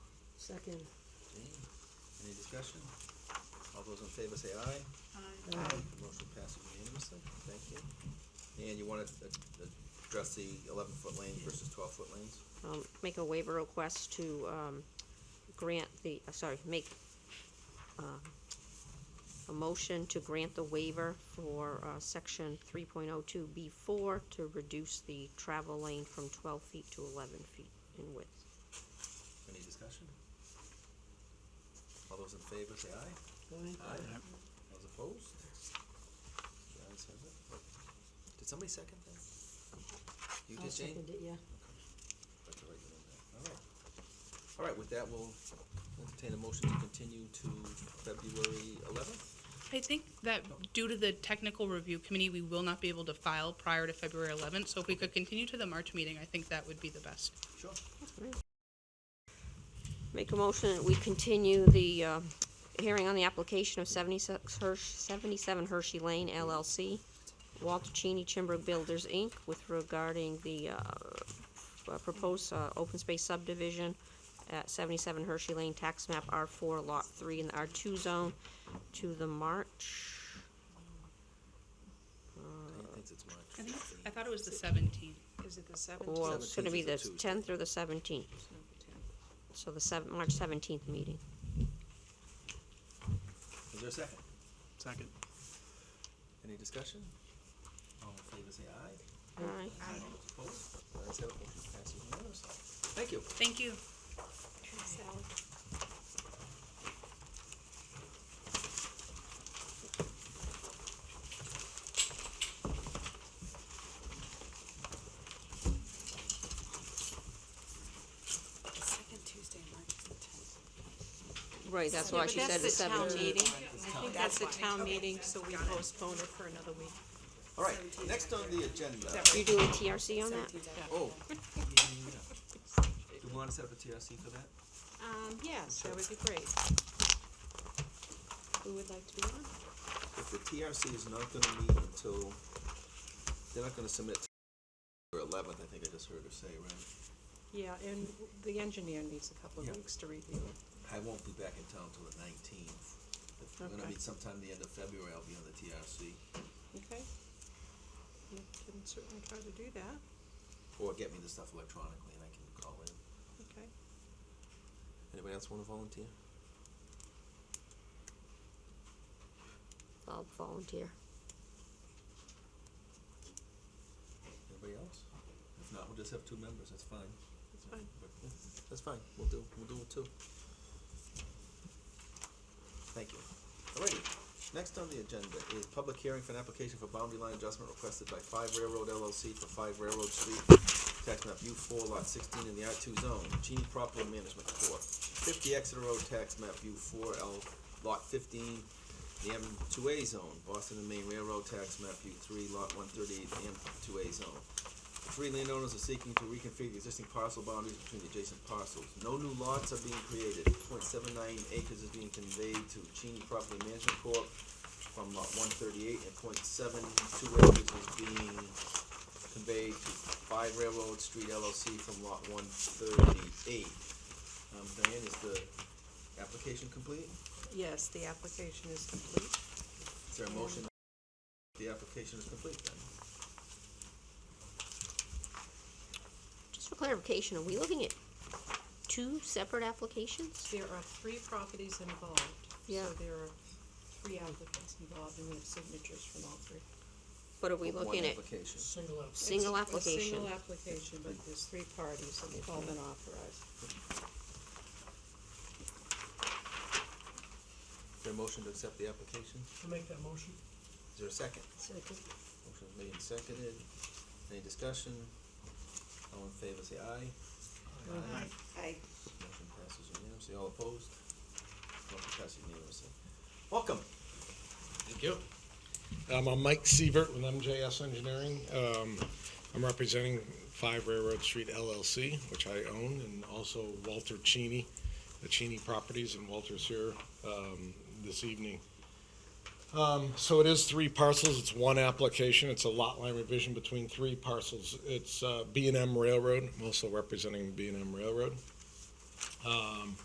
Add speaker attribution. Speaker 1: Second.
Speaker 2: Jane, any discussion? All those in favor say aye.
Speaker 3: Aye.
Speaker 2: Motion passes unanimously, thank you. And you wanna uh, address the eleven-foot lanes versus twelve-foot lanes?
Speaker 4: um, make a waiver request to, um, grant the, uh, sorry, make, um, a motion to grant the waiver for, uh, section three point oh two B four to reduce the travel lane from twelve feet to eleven feet in width.
Speaker 2: Any discussion? All those in favor say aye.
Speaker 1: Aye.
Speaker 2: Those opposed? The ayes have it. Did somebody second that? You
Speaker 1: I'll
Speaker 2: did, Jane?
Speaker 1: second it, yeah.
Speaker 2: That's the right one there. All right. All right, with that, we'll entertain a motion to continue to February eleventh.
Speaker 3: I think that due to the technical review committee, we will not be able to file prior to February eleventh, so if we could continue to the March meeting, I think that would be the best.
Speaker 2: Sure.
Speaker 4: Make a motion that we continue the, uh, hearing on the application of seventy-six Hirsch, seventy-seven Hershey Lane LLC, Walter Cheney Chimbrook Builders, Inc., with regarding the, uh, uh, proposed, uh, open space subdivision at seventy-seven Hershey Lane, tax map R four, lot three, in the R two zone, to the March,
Speaker 2: Diane thinks it's
Speaker 3: I
Speaker 2: March.
Speaker 3: think, I thought it was the seventeenth.
Speaker 5: Is it the seventeenth?
Speaker 4: well, it's gonna be the
Speaker 2: 17th is a Tuesday.
Speaker 4: tenth or the seventeenth, so the seven, March seventeenth meeting.
Speaker 2: Is there a second?
Speaker 6: Second.
Speaker 2: Any discussion? All in favor say aye.
Speaker 4: Aye.
Speaker 2: Those opposed? The ayes have it, motion passes unanimously. Thank you.
Speaker 3: Thank you.
Speaker 5: The second Tuesday, March is the tenth.
Speaker 4: Right, that's why she said the
Speaker 5: town
Speaker 4: seventeenth.
Speaker 5: meeting. I think that's the town meeting, so we postpone it for another week.
Speaker 2: All right, next on the agenda,
Speaker 4: You do a TRC on that?
Speaker 5: Seventeenth,
Speaker 2: oh. Do we wanna set up a TRC for that?
Speaker 5: Um, yes, that would be great. Who would like to be on?
Speaker 2: If the TRC is not gonna meet until, they're not gonna submit for eleventh, I think I just heard her say, right?
Speaker 5: Yeah, and the engineer needs a couple
Speaker 2: Yeah.
Speaker 5: of weeks to review it.
Speaker 2: I won't be back in town till the nineteenth. If we're gonna
Speaker 5: Okay.
Speaker 2: meet sometime the end of February, I'll be on the TRC,
Speaker 5: Okay. You can certainly try to do that,
Speaker 2: or get me the stuff electronically and I can call in.
Speaker 5: okay?
Speaker 2: Anybody else wanna volunteer?
Speaker 4: I'll volunteer.
Speaker 2: Anybody else? If not, we'll just have two members, that's fine.
Speaker 5: That's fine.
Speaker 2: But, yeah, That's fine, we'll do, we'll do it too. Thank you. Alrighty, next on the agenda is public hearing for an application for boundary line adjustment requested by Five Railroad LLC for Five Railroad Street, tax map U four lot sixteen in the R two zone, Genie Property Management Corp. Fifty Exeter Road, tax map U four L lot fifteen, the M two A zone, Boston and Maine Railroad, tax map U three lot one thirty-eight, M two A zone. Three landowners are seeking to reconfigure existing parcel boundaries between the adjacent parcels. No new lots are being created. 0.79 acres is being conveyed to Cheney Property Management Corp. from lot one thirty-eight, and 0.72 acres is being conveyed to Five Railroad Street LLC from lot one thirty-eight. Um, Diane, is the application complete?
Speaker 5: Yes, the application is complete.
Speaker 2: Is there a motion? The application is complete then?
Speaker 4: Just for clarification, are we looking at two separate applications?
Speaker 5: There are three properties involved.
Speaker 4: Yeah.
Speaker 5: So there are three applicants involved, and we have signatures from all three.
Speaker 4: But are we
Speaker 2: One
Speaker 4: looking at
Speaker 2: application.
Speaker 4: single
Speaker 5: It's A
Speaker 4: application?
Speaker 5: single application, but there's three parties, and they've all been authorized.
Speaker 2: Is there a motion to accept the application?
Speaker 6: I'll make that motion.
Speaker 2: Is there a second?
Speaker 1: Second.
Speaker 2: Motion is made and seconded. Any discussion? All in favor, say aye. Aye.
Speaker 5: Aye.
Speaker 2: Motion passes unanimously. All opposed? Motion passes unanimously. Welcome.
Speaker 7: Thank you. Um, I'm Mike Sievert with MJS Engineering. Um, I'm representing Five Railroad Street LLC, which I own, and also Walter Cheney, the Cheney Properties, and Walter's here, um, this evening. Um, so it is three parcels, it's one application, it's a lot line revision between three parcels. It's, uh, B and M Railroad, I'm also representing B and M Railroad. Um,